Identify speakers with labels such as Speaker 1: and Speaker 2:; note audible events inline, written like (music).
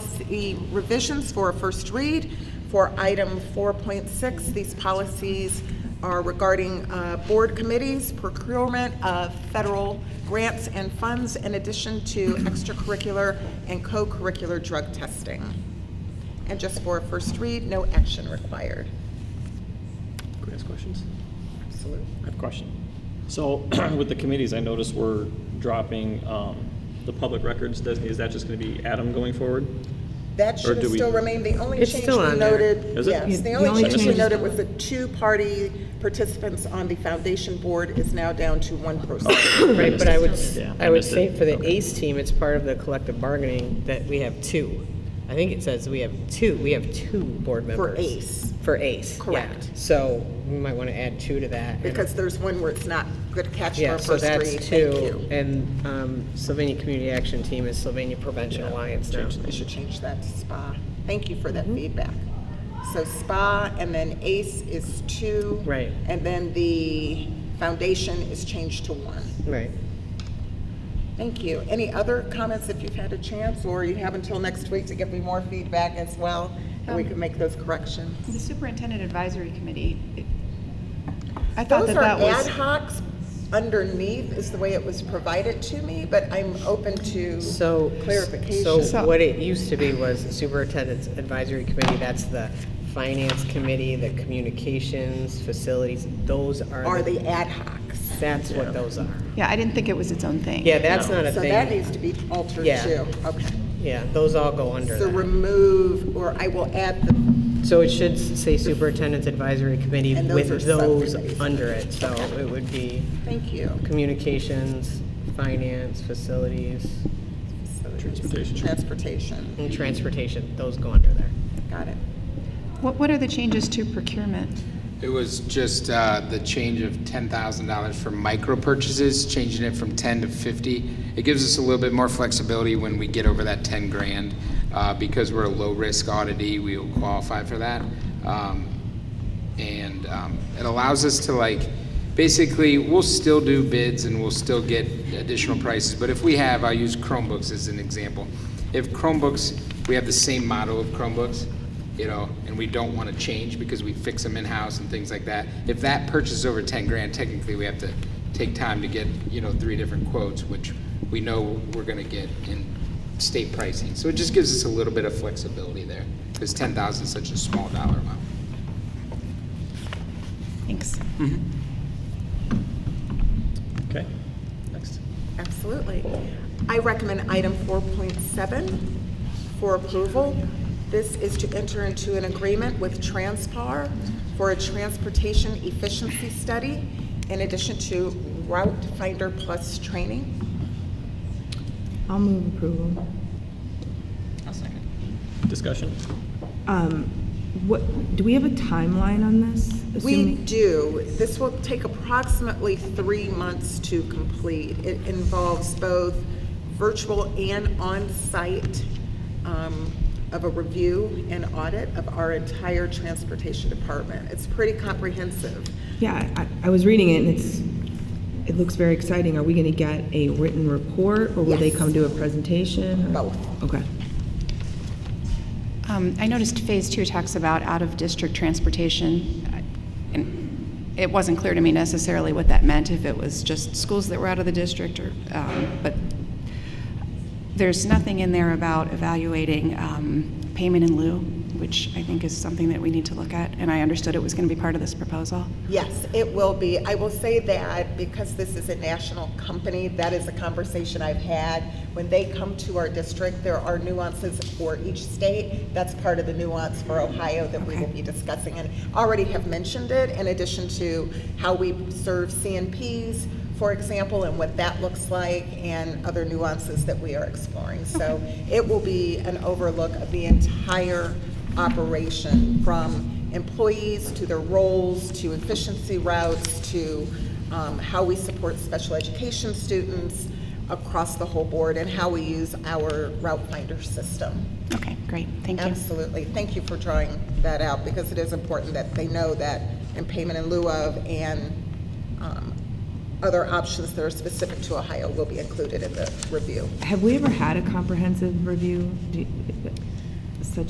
Speaker 1: policy revisions for a first read for item 4.6. These policies are regarding uh, board committees, procurement of federal grants and funds, in addition to extracurricular and co-curricular drug testing. And just for a first read, no action required.
Speaker 2: Can I ask questions?
Speaker 1: Absolutely.
Speaker 2: I have a question. So (clears throat) with the committees, I noticed we're dropping um, the public records. Does- Is that just going to be Adam going forward?
Speaker 1: That
Speaker 2: Or
Speaker 1: should
Speaker 2: do
Speaker 1: have
Speaker 2: we-
Speaker 1: still remained, the only
Speaker 3: It's
Speaker 1: change
Speaker 3: still
Speaker 1: we
Speaker 3: on there.
Speaker 1: noted.
Speaker 2: Is it?
Speaker 1: Yes, the
Speaker 3: The
Speaker 1: only
Speaker 3: only
Speaker 1: change we
Speaker 3: change-
Speaker 1: noted was the two-party participants on the foundation board is now down to one person.
Speaker 3: Right, but I would,
Speaker 2: Yeah, I
Speaker 3: I would
Speaker 2: missed
Speaker 3: say
Speaker 2: it.
Speaker 3: for the
Speaker 2: Okay.
Speaker 3: ACE team, it's part of the collective bargaining that we have two. I think it says we have two, we have two board members.
Speaker 1: ACE.
Speaker 3: For ACE, yeah.
Speaker 1: Correct.
Speaker 3: So we might want to add two to that. and-
Speaker 1: Because there's one where it's not good catch for
Speaker 3: Yeah,
Speaker 1: a
Speaker 3: so
Speaker 1: first read.
Speaker 3: that's
Speaker 1: Thank
Speaker 3: two.
Speaker 1: you.
Speaker 3: And um, Sylvania Community Action Team is Sylvania Prevention Alliance now.
Speaker 1: We should change that to SPA. Thank you for that
Speaker 3: Mm-hmm.
Speaker 1: feedback. So SPA and then ACE is two.
Speaker 3: Right.
Speaker 1: And then the foundation is changed to one.
Speaker 3: Right.
Speaker 1: Thank you. Any other comments if you've had a chance, or you have until next week to give me more feedback as well, and we
Speaker 4: Um,
Speaker 1: can make those corrections?
Speaker 4: The Superintendent Advisory Committee, it- I thought
Speaker 1: Those
Speaker 4: that
Speaker 1: are
Speaker 4: that
Speaker 1: ad
Speaker 4: was,
Speaker 1: hocs underneath is the way it was provided to me, but I'm open to
Speaker 3: So.
Speaker 1: clarification.
Speaker 3: So what it used to be was the Superintendent's Advisory Committee, that's the Finance Committee, the Communications, Facilities, those are.
Speaker 1: Are the ad hocs.
Speaker 3: That's what those are.
Speaker 4: yeah, I didn't think it was its own thing.
Speaker 3: Yeah, that's
Speaker 2: No.
Speaker 3: not a
Speaker 1: So that
Speaker 3: thing.
Speaker 1: needs to be altered
Speaker 3: Yeah.
Speaker 1: too. Okay.
Speaker 3: Yeah, those all go under
Speaker 1: So
Speaker 3: that.
Speaker 1: remove, or I will add the,
Speaker 3: So it should say Superintendent's Advisory Committee
Speaker 1: And those are
Speaker 3: with those
Speaker 1: subcommittees.
Speaker 3: under it. So it would be
Speaker 1: thank you.
Speaker 3: Communications, Finance, Facilities,
Speaker 2: Transportation.
Speaker 1: Transportation.
Speaker 3: and Transportation, those go under there.
Speaker 1: Got it.
Speaker 4: What, what are the changes to procurement?
Speaker 5: It was just uh, the change of $10,000 for micro purchases, changing it from 10 to 50. It gives us a little bit more flexibility when we get over that 10 grand. uh, Because we're a low-risk auditee, we will qualify for that. Um, And um, it allows us to like, basically, we'll still do bids and we'll still get additional prices. But if we have, I'll use Chromebooks as an example. If Chromebooks, we have the same model of Chromebooks, you know, and we don't want to change because we fix them in-house and things like that. If that purchase is over ten grand, technically, we have to take time to get, you know, three different quotes, which we know we're gonna get in state pricing. So it just gives us a little bit of flexibility there, because ten thousand is such a small dollar amount.
Speaker 4: Thanks.
Speaker 2: Okay, next.
Speaker 1: Absolutely. I recommend item 4.7 for approval. This is to enter into an agreement with Transpar for a transportation efficiency study in addition to Route Finder Plus training.
Speaker 6: I'll move approval.
Speaker 2: Discussion?
Speaker 6: Um, What, do we have a timeline on this?
Speaker 1: We
Speaker 6: Assuming-
Speaker 1: do, this will take approximately three months to complete. It involves both virtual and on-site um, of a review and audit of our entire transportation department. It's pretty comprehensive.
Speaker 6: Yeah, I, I was reading it and it's, it looks very exciting. Are we gonna get a written report or will they
Speaker 1: Yes.
Speaker 6: come do a presentation? or-
Speaker 1: Both.
Speaker 6: Okay.
Speaker 4: Um, I noticed Phase Two talks about out-of-district transportation. I- and It wasn't clear to me necessarily what that meant, if it was just schools that were out of the district or, um, but there's nothing in there about evaluating um, payment in lieu, which I think is something that we need to look at, and I understood it was going to be part of this proposal.
Speaker 1: Yes, it will be. I will say that because this is a national company, that is a conversation I've had. When they come to our district, there are nuances for each state. That's part of the nuance for Ohio that we will be discussing and already have mentioned it in addition to how we serve CNPs, for example, and what that looks like and other nuances that we are exploring. So it will be an overlook of the entire operation from employees, to their roles, to efficiency routes, to um, how we support special education students across the whole board, and how we use our route finder system.
Speaker 4: Okay, great, thank you.
Speaker 1: Absolutely. Thank you for drawing that out, because it is important that they know that in payment in lieu of and um, other options that are specific to Ohio will be included in the review.
Speaker 6: Have we ever had a comprehensive review? Do-